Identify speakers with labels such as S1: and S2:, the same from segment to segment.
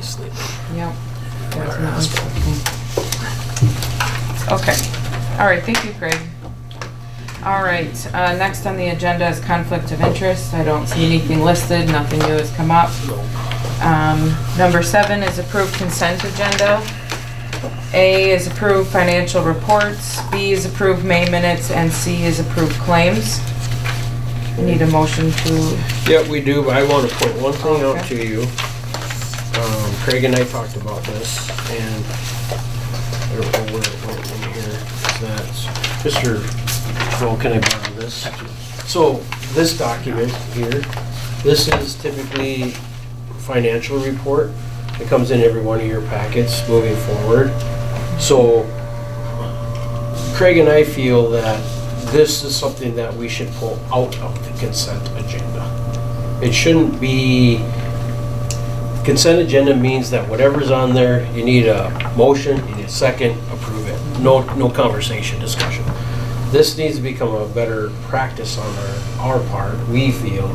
S1: sleep.
S2: Yep.
S1: That's not
S2: Okay. All right, thank you, Craig. All right, uh, next on the agenda is conflict of interest. I don't see anything listed, nothing new has come up. Um, Number seven is approved consent agenda. A is approved financial reports, B is approved May minutes, and C is approved claims. I Need a motion to,
S1: Yeah, we do, but I want to point one thing out
S2: Okay.
S1: to you. Um, Craig and I talked about this, and I don't know where it went in here. That's, Mr. Phil, can I borrow this? So, this document here, this is typically financial report. It comes in every one of your packets moving forward. So, Craig and I feel that this is something that we should pull out of the consent agenda. It shouldn't be, consent agenda means that whatever's on there, you need a motion, you need a second, approve it. No, no conversation, discussion. This needs to become a better practice on our, our part, we feel,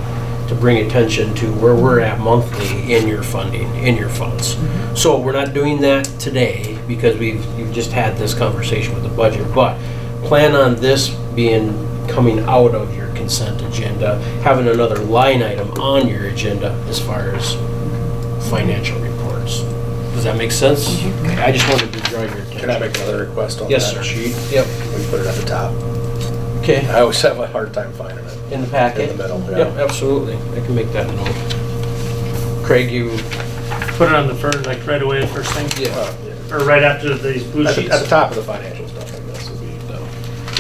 S1: to bring attention to where we're at monthly in your funding, in your funds. So we're not doing that today because we've, you've just had this conversation with the budget, but plan on this being, coming out of your consent agenda, having another line item on your agenda as far as financial reports. Does that make sense? Okay, I just wanted to draw your attention.
S3: Can I make another request on that?
S1: Yes, sir.
S3: sheet?
S1: Yep,
S3: We put it at the top.
S1: okay,
S3: I always have a hard time finding it.
S1: in the packet.
S3: In the middle, yeah.
S1: Yep, absolutely, I can make that note. Craig, you,
S4: Put it on the first, like right away, the first thing,
S1: yeah,
S3: Uh, yeah.
S4: or right after these blue
S3: At the,
S4: sheets.
S3: at the top of the financial stuff, I guess, would be,
S1: so,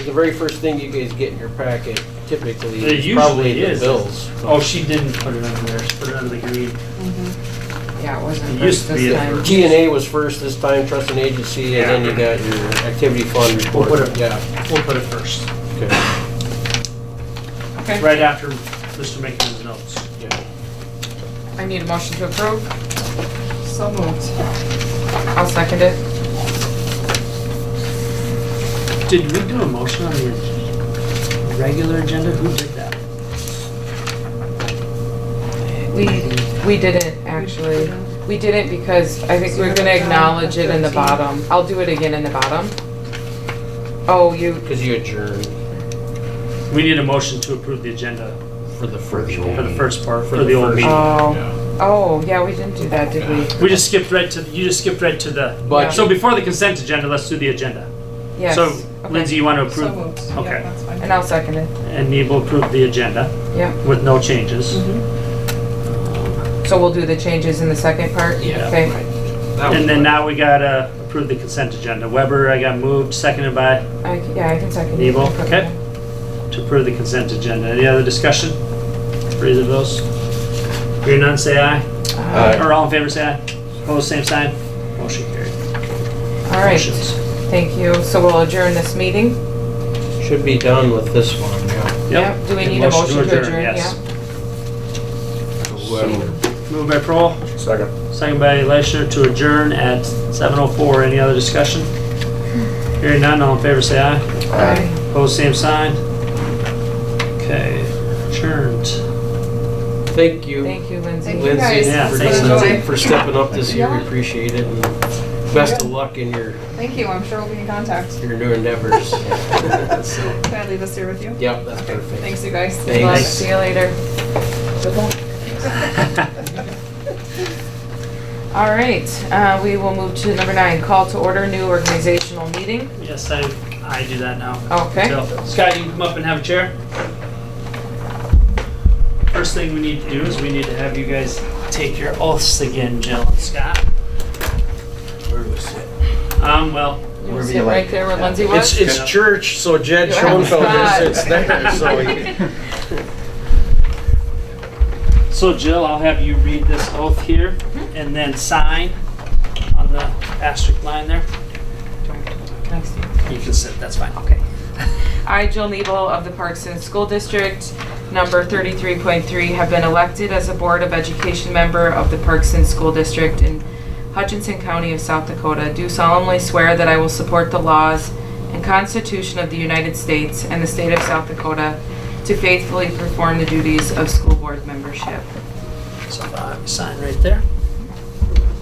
S1: the very first thing you guys get in your packet typically
S4: It
S1: is probably
S4: usually
S1: the
S4: is.
S1: bills.
S4: Oh, she didn't put it under there, she put it under the green.
S2: yeah, it wasn't
S4: It used
S2: approved
S4: to be
S2: this
S4: a-
S2: time.
S1: G and A was first this time, trust and agency, and then you got your activity fund report.
S4: Whatever.
S1: Yeah,
S4: We'll put it first,
S1: okay,
S2: Okay,
S4: right after Mr. Mickens' notes.
S1: yeah.
S2: I need a motion to approve. So moved. I'll second it.
S4: Did we do a motion on the regular agenda? Who did that?
S2: We, we didn't, actually. We didn't because I think we're gonna acknowledge it in the bottom. I'll do it again in the bottom. Oh, you,
S1: Because you adjourned
S4: We need a motion to approve the agenda
S1: for the first.
S4: for the first part, for the old
S1: first-
S4: meeting.
S2: oh,
S1: Yeah.
S2: oh, yeah, we didn't do that, did we?
S4: We just skipped right to, you just skipped right to the,
S1: But
S4: so before the consent agenda, let's do the agenda.
S2: Yes.
S4: So
S2: Okay.
S4: Lindsay, you want to
S5: So
S4: approve?
S5: moved.
S4: Okay.
S5: Yeah, that's fine. uh,
S2: And I'll second it.
S4: And we will approve the agenda
S2: Yep.
S4: with no changes.
S2: So we'll do the changes in the second part?
S1: Yeah,
S2: Okay,
S1: right.
S4: And then now we gotta approve the consent agenda. Weber, I got moved, seconded by,
S2: I, yeah, I can second it.
S4: Evil, okay. to approve the consent agenda. Any other discussion? For either of those? Hearing none, say aye.
S2: Uh,
S4: Or all in favor, say aye. Opposed, same sign. Motion carried.
S2: All right,
S4: Motions.
S2: thank you. So we'll adjourn this meeting?
S1: Should be done with this one, yeah.
S4: Yep.
S2: Do we need a motion to adjourn?
S4: Yes.
S2: Yeah.
S1: Whoever.
S4: Moved by Pearl,
S3: second.
S4: second by Leishner to adjourn at 7:04. Any other discussion? Hearing none, all in favor, say aye.
S2: Aye.
S4: Opposed, same sign. Okay, adjourned.
S1: Thank you,
S2: Thank you, Lindsay.
S5: Thank you
S1: Lindsay,
S5: guys.
S4: Yeah,
S1: for
S4: thanks,
S1: doing-
S5: Lindsay.
S1: for stepping up this year. We
S5: Yeah.
S1: appreciate it. and Best of luck in your,
S5: Thank you, I'm sure we'll be in contact.
S1: your new endeavors. So,
S5: Can I leave this here with you?
S1: Yep, that's perfect.
S5: Thanks, you guys.
S1: Thanks.
S2: Love, see you later. All right, uh, we will move to number nine, call to order new organizational meeting.
S4: Yes, I, I do that now.
S2: Okay,
S4: So, Scott, you can come up and have a chair. First thing we need to do is we need to have you guys take your oaths again, Jill and Scott.
S3: Where do we sit?
S4: Um, well,
S2: you sit right there where Lindsay
S1: It's,
S2: was.
S1: it's church, so Jed
S2: You have
S1: Schoenfeld
S2: Scott.
S1: sits there, so he-
S4: so Jill, I'll have you read this oath here
S2: Mm-hmm.
S4: and then sign on the asterisk line there.
S2: Next to you.
S4: You can sit, that's fine.
S2: Okay. I, Jill Nebel of the Parks and School District, number 33.3, have been elected as a Board of Education member of the Parks and School District in Hutchinson County of South Dakota. Do solemnly swear that I will support the laws and Constitution of the United States and the state of South Dakota to faithfully perform the duties of school board membership.
S4: So, uh, sign right there.